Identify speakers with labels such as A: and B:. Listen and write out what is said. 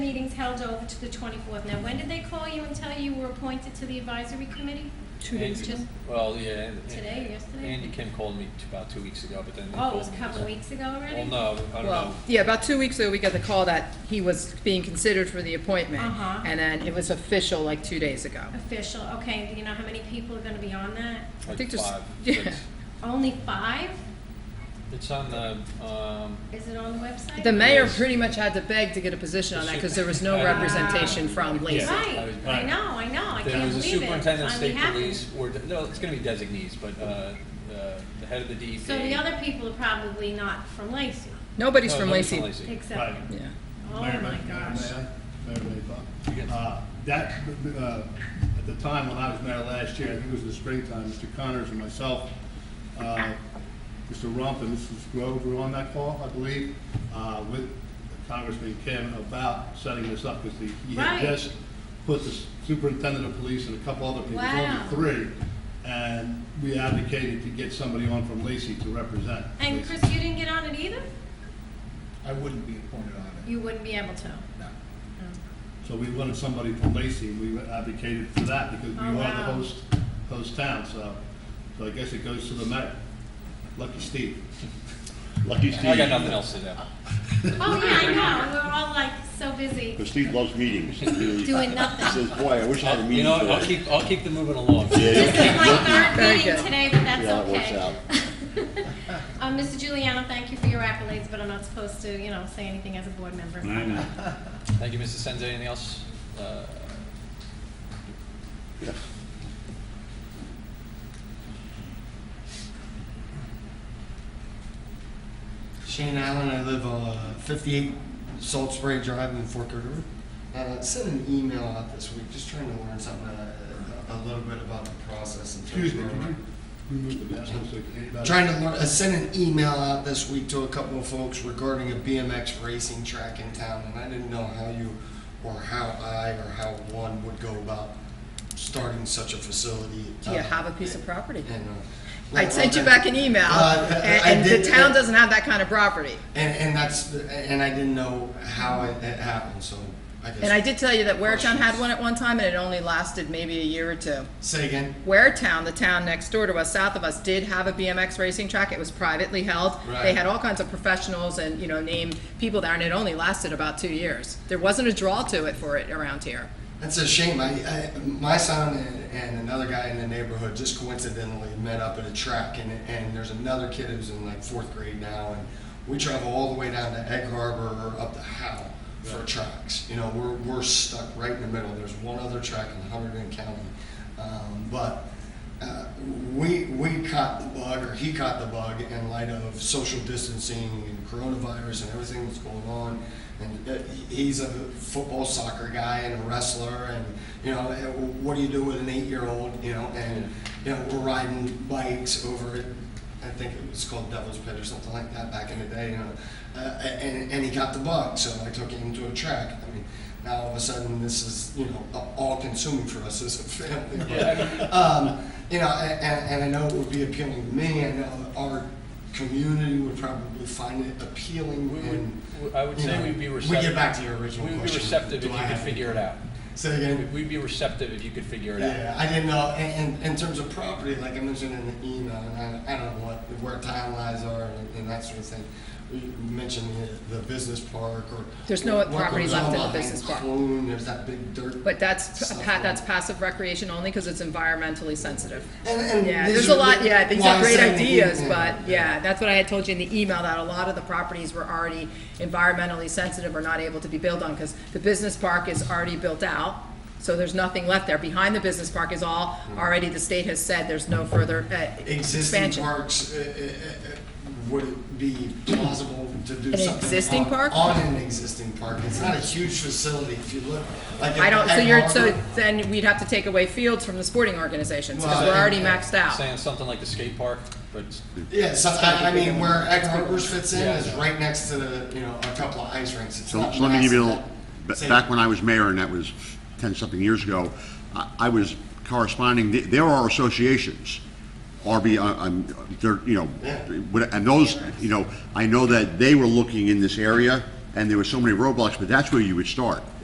A: everything's held over to the 24th. Now, when did they call you and tell you you were appointed to the advisory committee?
B: Two days
A: Just-
B: ago.
C: Well, yeah. and-
A: Today, yesterday?
C: Andy Kim called me t- about two weeks ago, but then. they
A: Oh, it was a
C: called me-
A: couple of weeks ago already?
C: Well, no, I don't know.
B: Well, yeah, about two weeks ago, we got the call that he was being considered for the appointment.
A: Uh-huh.
B: And then it was official like two days ago.
A: Official, okay, do you know how many people are gonna be on that?
B: I
C: Like
B: think there's-
C: five,
B: yeah.
C: six.
A: Only five?
C: It's on the, um,
A: Is it on the website?
B: The mayor
C: Yes.
B: pretty much had to beg to get a position on that because there was no
C: Wow.
B: representation from Lacey.
C: Yeah.
A: Right, I know, I know, I
C: There
A: can't
C: was a
A: believe it.
C: superintendent of
A: I'm
C: state
A: happy.
C: police, or, de- no, it's gonna be designees, but, uh, uh, the head of the DEP.
A: So the other people are probably not from Lacey,
B: Nobody's
C: No,
B: from
C: nobody's
B: Lacey.
A: except,
D: Right.
B: Yeah.
A: oh
D: Mayor
A: my
D: May-
A: gosh.
D: Mayor May- Mayor May
C: Yes.
D: Buck. Uh, That, uh, at the time when I was mayor last year, I think it was in the springtime, Mr. Connors and myself, uh, Mr. Rump and Mrs. Grove were on that call, I believe, uh, with Congressman Kim about setting this up, because he
A: Right.
D: had just put the superintendent of police and a couple other people, it was
A: Wow.
D: only three, and we advocated to get somebody on from Lacey to represent.
A: And
D: Lacey.
A: Chris, you didn't get on it either?
E: I wouldn't be appointed on it,
A: You wouldn't be able to.
E: no.
D: So we wanted somebody from Lacey, and we advocated for that because we
A: Oh,
D: wanted
A: wow.
D: to host, host town, so, so I guess it goes to the mayor. Lucky Steve. Lucky Steve.
C: I got nothing else to do.
A: Oh, yeah, I know, we're all like so busy
F: Because Steve loves meetings. He really-
A: doing
F: he
A: nothing.
F: Says, boy, I wish I had a
C: You
F: meeting
C: know, what?
G: uh,
C: I'll
F: today.
C: keep, I'll keep them moving along.
F: Yeah,
A: This
F: you'll
A: is my
F: keep-
A: third
B: Very
A: meeting
B: good.
A: today, but that's
F: Yeah, it works
A: okay.
F: out.
A: Um, Mr. Giuliano, thank you for your accolades, but I'm not supposed to, you know, say anything as a board member.
H: I know.
C: Thank you, Mr. Senza. Anything else? Uh,
F: Yeah.
G: Shane Allen. I live on uh, 58 Salt Spring Drive in Fork River. Uh, sent an email out this week, just trying to learn something uh, a little bit about the process. in terms
D: Excuse me,
G: of-
D: could you remove the mask? so I can-
G: Trying to learn. I sent an email out this week to a couple of folks regarding a BMX racing track in town, and I didn't know how you, or how I, or how one would go about starting such a facility.
B: Do you
G: uh,
B: have a piece of property?
G: and, uh,
B: I sent you back an email,
G: Uh, I- I
B: and and the
G: did-
B: town doesn't have that kind of property.
G: And, and that's, and I didn't know how it, it happened, so I guess.
B: And I did tell you that Waretown had one at one time, and it only lasted maybe a year or two.
G: Say again.
B: Waretown, the town next door to us, south of us, did have a BMX racing track. It was privately held. They
G: Right.
B: had all kinds of professionals and, you know, named people there, and it only lasted about two years. There wasn't a draw to it for it around here.
G: That's a shame. I, I my son and, and another guy in the neighborhood just coincidentally met up at a track, and and there's another kid who's in like fourth grade now, and we travel all the way down to Egg Harbor or up to Howe for tracks. You know, we're we're stuck right in the middle. There's one other track in Hunterdon County, um, but. Uh, we we caught the bug, or he caught the bug, in light of social distancing and coronavirus and everything that's going on. And uh, he- he's a football, soccer guy, and a wrestler, and you know, uh, what do you do with an eight-year-old? You know, and you know, we're riding bikes over it. I think it was called Devil's Pit or something like that back in the day. You know, uh, and and he got the bug, so I took him to a track. I mean, now all of a sudden, this is you know all-consuming for us as a family. But, um, you know, a- and, and I know it would be appealing to me, I know that our community would probably find it appealing
C: We
G: and.
C: would, I would
G: you
C: say
G: know,
C: we'd be
G: We
C: receptive.
G: get back to your original
C: We
G: question.
C: would be receptive
G: Do
C: if
G: I
C: you could
G: have-
C: figure it out.
G: Say again?
C: We'd be receptive if you could figure it out.
G: Yeah, I didn't know, and, and in terms of property, like I mentioned in the email, and I, I don't know what, where town lines are and, and that sort of thing. You mentioned the, the business park or.
B: There's no
G: what
B: property
G: goes
B: left
G: on
B: in the
G: behind
B: business park.
G: Clune, there's that big dirt.
B: But that's,
G: stuff
B: pa-
G: on-
B: that's passive recreation only, because it's environmentally sensive.
G: And, and.
B: Yeah,
G: these
B: there's a
G: are
B: lot,
G: the-
B: yeah, these
G: why
B: are
G: I
B: great
G: said in the
B: ideas,
G: email.
B: but, yeah, that's what I had told you in the email, that a lot of the properties were already environmentally sensitive or not able to be built on, because the business park is already built out, so there's nothing left there. Behind the business park is all, already the state has said there's no further uh,
G: existing
B: expansion.
G: parks, uh, uh, uh, would it be plausible to do
B: An
G: something?
B: existing
G: on-
B: park?
G: On an existing park, it's not a huge facility, if you look, like.
B: I
G: at
B: don't, so
G: Egg
B: you're, so
G: Harbor.
B: then we'd have to take away fields from the sporting organizations, because
G: Well,
B: we're already
G: and-
B: maxed out.
C: Saying something like the skate park, but
G: Yeah, so, I, I mean, where Egg Harbors fits in
C: Yeah.
G: is right next to the, you know, a couple of ice rinks, it's
F: So
G: not
F: so let me give you a
G: massive.
F: little, ba- back when I was mayor, and that was ten-something years ago, I- I was corresponding, th- there are associations, RB, uh, um, they're, you know,
G: Yeah.
F: what- and those, you know, I know that they were looking in this area, and there were so many roadblocks, but that's where you would start.